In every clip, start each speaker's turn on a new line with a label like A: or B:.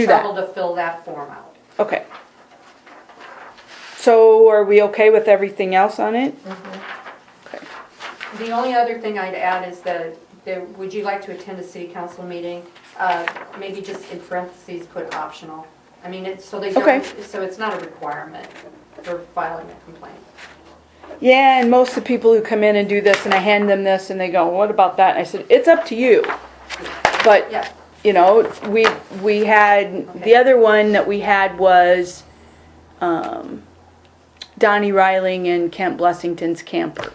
A: Do that.
B: trouble to fill that form out.
A: Okay. So are we okay with everything else on it? Okay.
B: The only other thing I'd add is that, there- would you like to attend a city council meeting? Uh, Maybe just in parentheses, put optional. I mean, it's, so they
A: Okay.
B: don't, so it's not a requirement for filing a complaint.
A: Yeah, and most of the people who come in and do this, and I hand them this, and they go, what about that? And I said, it's up to you. But,
B: Yeah,
A: you know, we, we had, the
B: Okay.
A: other one that we had was, um, Donnie Riling and Kent Blessington's camper.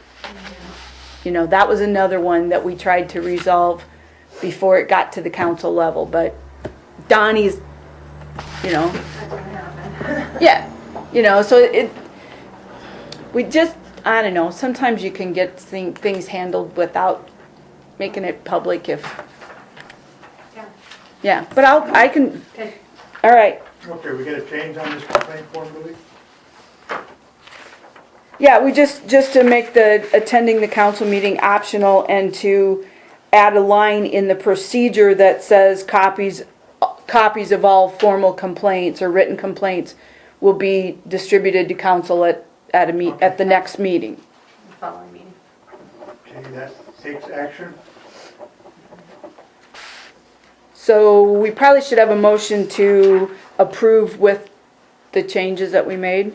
A: You know, that was another one that we tried to resolve before it got to the council level, but Donnie's, you know,
C: That didn't happen.
A: Yeah, you know, so it, we just, I don't know, sometimes you can get thing, things handled without making it public if,
B: yeah,
A: yeah, but I'll, I can,
B: okay.
A: all right.
D: Okay, we got a change on this complaint form, Louis?
A: Yeah, we just, just to make the attending the council meeting optional and to add a line in the procedure that says copies, copies of all formal complaints or written complaints will be distributed to council at, at a meet, at the next meeting.
B: Following meeting.
D: Okay, that takes action.
A: So we probably should have a motion to approve with the changes that we made.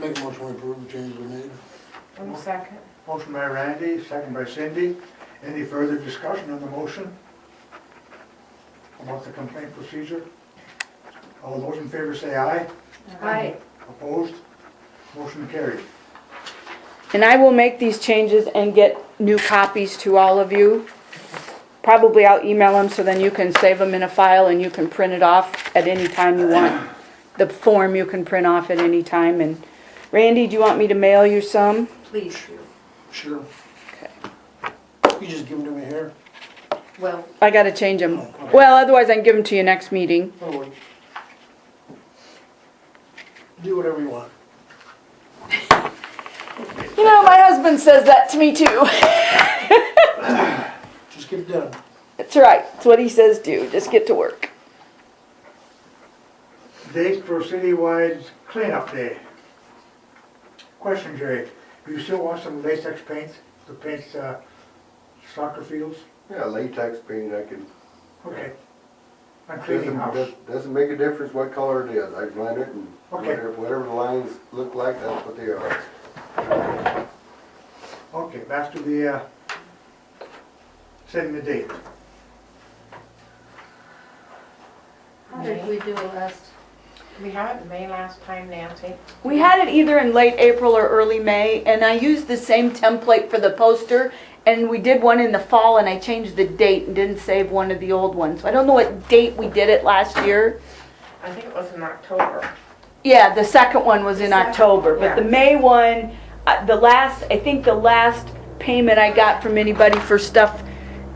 E: Make a motion to approve the change we made.
C: One second.
D: Motion by Randy, second by Cindy. Any further discussion on the motion? About the complaint procedure? All those in favor say aye.
B: Aye.
D: Opposed? Motion carried.
A: And I will make these changes and get new copies to all of you. Probably I'll email them so then you can save them in a file and you can print it off at any time you want. The form you can print off at any time and Randy, do you want me to mail you some?
B: please do.
E: Sure. You just give them to me here.
B: Well,
A: I gotta change them. Well, otherwise I can give them to you next meeting.
E: Or what? Do whatever you want.
A: You know, my husband says that to me too.
E: Just get it done.
A: That's right. It's what he says do. Just get to work.
D: Date for citywide cleanup day. Question, Jerry, do you still want some latex paint to paint uh, soccer fields?
F: Yeah, latex paint, I can,
D: Okay. I'm cleaning
F: doesn't,
D: house.
F: does- doesn't make a difference what color it is, I blend it and
D: Okay.
F: whatever, whatever the lines look like, that's what they are.
D: Okay, back to the, uh, setting the date.
B: how did we do last?
C: We had it in May last time, Nancy.
A: We had it either in late April or early May, and I used the same template for the poster. And we did one in the fall, and I changed the date and didn't save one of the old ones. So I don't know what date we did it last year.
C: I think it was in October.
A: Yeah, the second one was in October, but the
C: Yeah.
A: May one, uh, the last, I think the last payment I got from anybody for stuff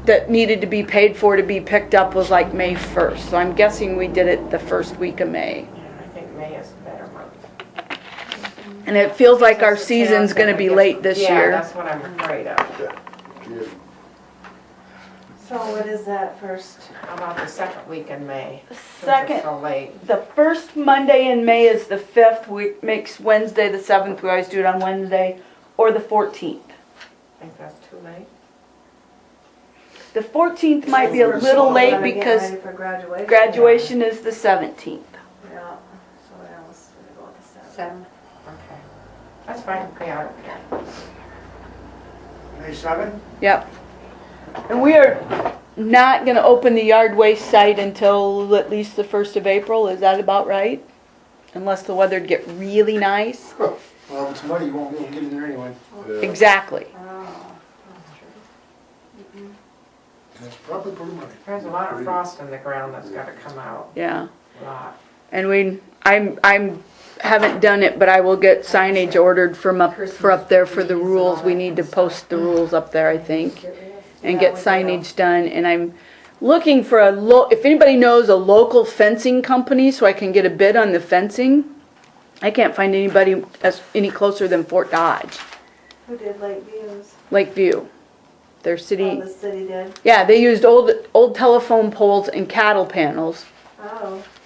A: that needed to be paid for to be picked up was like May 1st. So I'm guessing we did it the first week of May.
C: Yeah, I think May is a better month.
A: And it feels like our
C: Since the town's
A: season's gonna be
C: get-
A: late this
C: Yeah,
A: year.
C: that's what I'm afraid of.
F: Just
G: So what is that first?
C: About the second week in May. since it's
A: Second,
C: so late.
A: the first Monday in May is the fifth, we, makes Wednesday the seventh, we always do it on Wednesday, or the fourteenth.
C: I think that's too late.
A: The fourteenth might be a little late because
G: Getting ready for graduation.
A: graduation is the seventeenth.
G: Yeah, so what else? We're gonna go with the seven.
B: Seven.
C: Okay. That's fine, yeah, I don't care.
D: May seven?
A: Yep. And we are not gonna open the yard waste site until at least the first of April, is that about right? Unless the weather'd get really nice.
E: Well, if it's muddy, you won't be able to get in there anyway.
F: yeah.
A: Exactly.
B: Oh,
E: And it's probably pretty muddy.
C: There's a lot of frost in the ground that's gotta come out,
A: Yeah.
C: a lot.
A: And we, I'm, I'm, haven't done it, but I will get signage ordered from up, for up there for the rules. We need to post the rules up there, I think, and get signage done. And I'm looking for a lo, if anybody knows a local fencing company, so I can get a bid on the fencing. I can't find anybody as, any closer than Fort Dodge,
G: Who did Lake Views?
A: Lakeview. Their city,
G: Oh, the city did.
A: yeah, they used old, old telephone poles and cattle panels
G: Oh.